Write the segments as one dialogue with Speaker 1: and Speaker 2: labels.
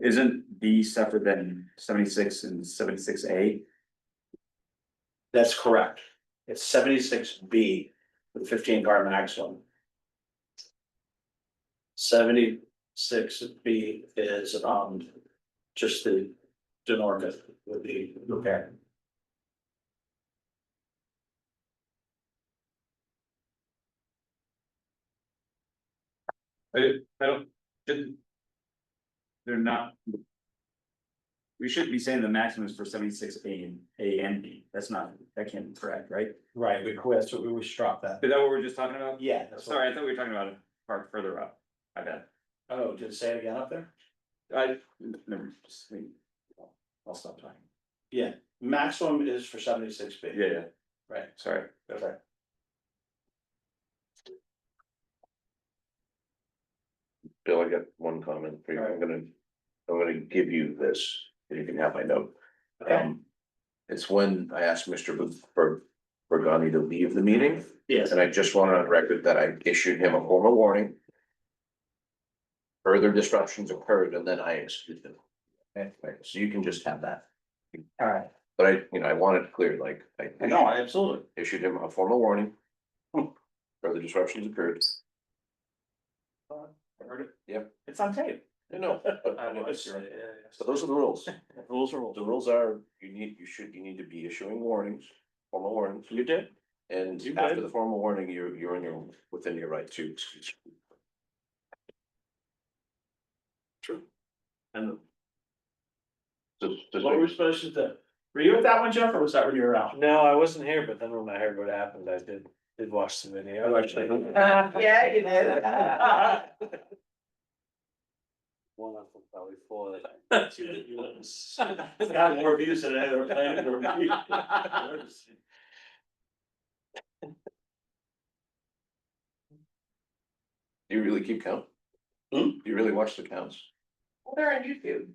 Speaker 1: Isn't B separate than seventy-six and seventy-six A?
Speaker 2: That's correct. It's seventy-six B with fifteen car maximum. Seventy-six B is, um, just the denormant would be. Okay.
Speaker 1: I don't, didn't. They're not. We should be saying the maximum is for seventy-six A and A and B, that's not, that can't be correct, right?
Speaker 2: Right, we quit, so we, we struck that.
Speaker 1: Is that what we we're just talking about?
Speaker 2: Yeah. that's what-
Speaker 1: Sorry, I thought we were talking about a part further up, I bet,
Speaker 2: Oh, did it say it again up there?
Speaker 1: I, never, just, wait. I'll stop talking.
Speaker 2: Maximum is for seventy-six B.
Speaker 1: Yeah, yeah,
Speaker 2: Right,
Speaker 1: sorry.
Speaker 2: okay.
Speaker 3: Bill, I got one comment for you. I'm gonna, I'm gonna give you this, and you can have my note. Um, it's when I asked Mr. Booth for, for Gandhi to leave the meeting,
Speaker 2: Yes,
Speaker 3: and I just wanted on record that I issued him a formal warning. Further disruptions occurred, and then I excused him. Okay, so you can just have that.
Speaker 2: all right.
Speaker 3: But I, you know, I wanted it clear, like, I
Speaker 2: No, absolutely.
Speaker 3: issued him a formal warning. Further disruptions occurred.
Speaker 1: I heard it.
Speaker 3: Yep.
Speaker 1: It's on tape.
Speaker 3: You know, but-
Speaker 2: I was, uh,
Speaker 3: so those are the rules.
Speaker 2: Rules are rules.
Speaker 3: The rules are, you need, you should, you need to be issuing warnings, formal warnings. You did. And
Speaker 2: You
Speaker 3: after
Speaker 2: did.
Speaker 3: the formal warning, you're, you're in your, within your right to excuse.
Speaker 2: True. And
Speaker 3: Does- does
Speaker 2: what were we
Speaker 3: it-
Speaker 2: supposed to do? Were you at that one, Jeff, or was that when you were out?
Speaker 4: No, I wasn't here, but then when I heard what happened, I did, did watch the video, actually.
Speaker 2: Yeah,
Speaker 4: you
Speaker 2: did.
Speaker 4: One of them probably four.
Speaker 2: Got more views than I ever planned or viewed.
Speaker 3: Do you really keep count?
Speaker 2: Hmm?
Speaker 3: Do you really watch the counts?
Speaker 5: Well, they're on YouTube.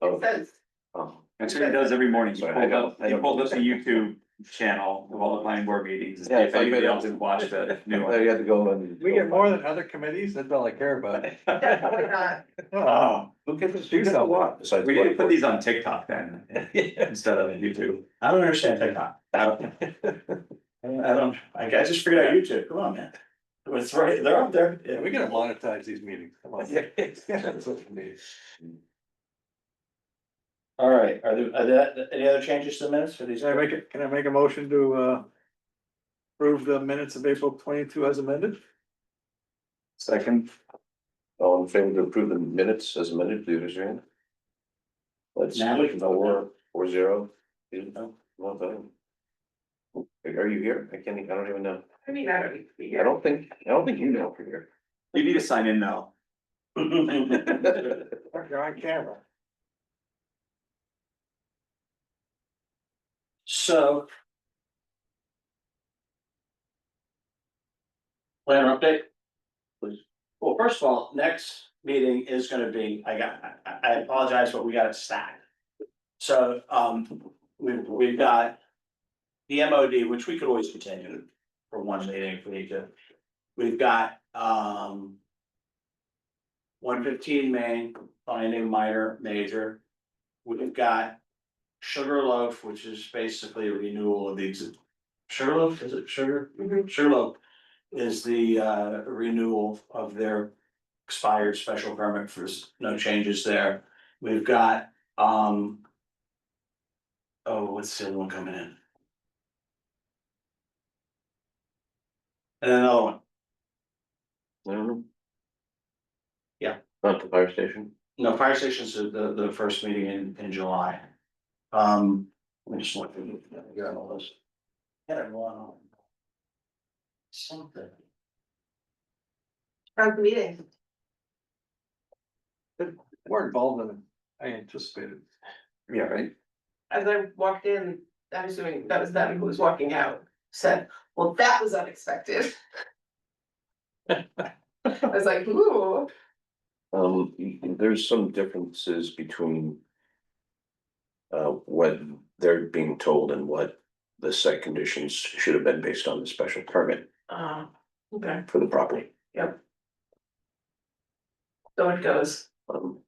Speaker 3: Oh,
Speaker 5: It says,
Speaker 3: oh,
Speaker 1: That's what he does every morning, he
Speaker 3: Sorry, I
Speaker 1: pulled up,
Speaker 3: don't- I
Speaker 1: he
Speaker 3: don't-
Speaker 1: pulled up the YouTube channel of all the planning board meetings, and see
Speaker 3: Yeah,
Speaker 1: if
Speaker 3: so you
Speaker 1: anybody
Speaker 3: don't-
Speaker 1: else had watched the new
Speaker 3: Now
Speaker 1: one.
Speaker 3: you had to go and.
Speaker 4: We get more than other committees, that's all I care about.
Speaker 5: definitely not.
Speaker 4: Oh,
Speaker 3: Who gets to
Speaker 4: do something?
Speaker 3: Besides.
Speaker 1: We need to put these on TikTok then, instead of YouTube.
Speaker 2: I don't understand TikTok.
Speaker 1: I don't-
Speaker 2: I don't- I don't, I guess just figured out YouTube, come on, man. It's right, they're up there.
Speaker 4: Yeah, we gotta monetize these meetings, come on. That's what we need.
Speaker 2: All right, are there, are there any other changes to the minutes for these?
Speaker 4: Can I make it, can I make a motion to, uh, approve the minutes of April twenty-two as amended?
Speaker 1: Second,
Speaker 3: All in favor Oh, to approve the minutes as amended, please raise your hand. Let's,
Speaker 2: Now we can vote
Speaker 3: four,
Speaker 2: now.
Speaker 3: four zero. You don't- you want that? Are you here? I can't, e- I don't even know.
Speaker 5: I mean, I don't need to be
Speaker 3: I
Speaker 5: here.
Speaker 3: don't think, I don't think you know for here.
Speaker 1: you need to sign in now.
Speaker 4: You're on camera.
Speaker 2: So. Planner update? Please. Well, first of all, next meeting is gonna be, I got, I- I, I apologize, but we got it stacked. So, um, we, we've got. The MOD, which we could always continue for one meeting if we need to. We've got, um. One fifteen main, finding minor, major. We've got Sugarloaf, which is basically a renewal of the exi- Sugarloaf, is it Sugar? Sugarloaf is the uh renewal of their expired special permit for s- no changes there. We've got um. Oh, what's the other one coming in? And another one,
Speaker 3: I don't know.
Speaker 2: Yeah.
Speaker 3: Not the fire station.
Speaker 2: no, fire station's the the the first meeting in in July. Um, let me just look, I got all those. Had it wrong on. Something.
Speaker 5: How's the meeting?
Speaker 4: More involved than I anticipated.
Speaker 1: Yeah, right?
Speaker 5: As I walked in, I'm assuming that was them who was walking out, said, well, that was unexpected. I was like, ooh,
Speaker 3: Um, y- there's some differences between. Uh, what they're being told and what the site conditions should have been based on the special permit
Speaker 5: uh, okay,
Speaker 3: for the property.
Speaker 5: so it goes.
Speaker 3: Um,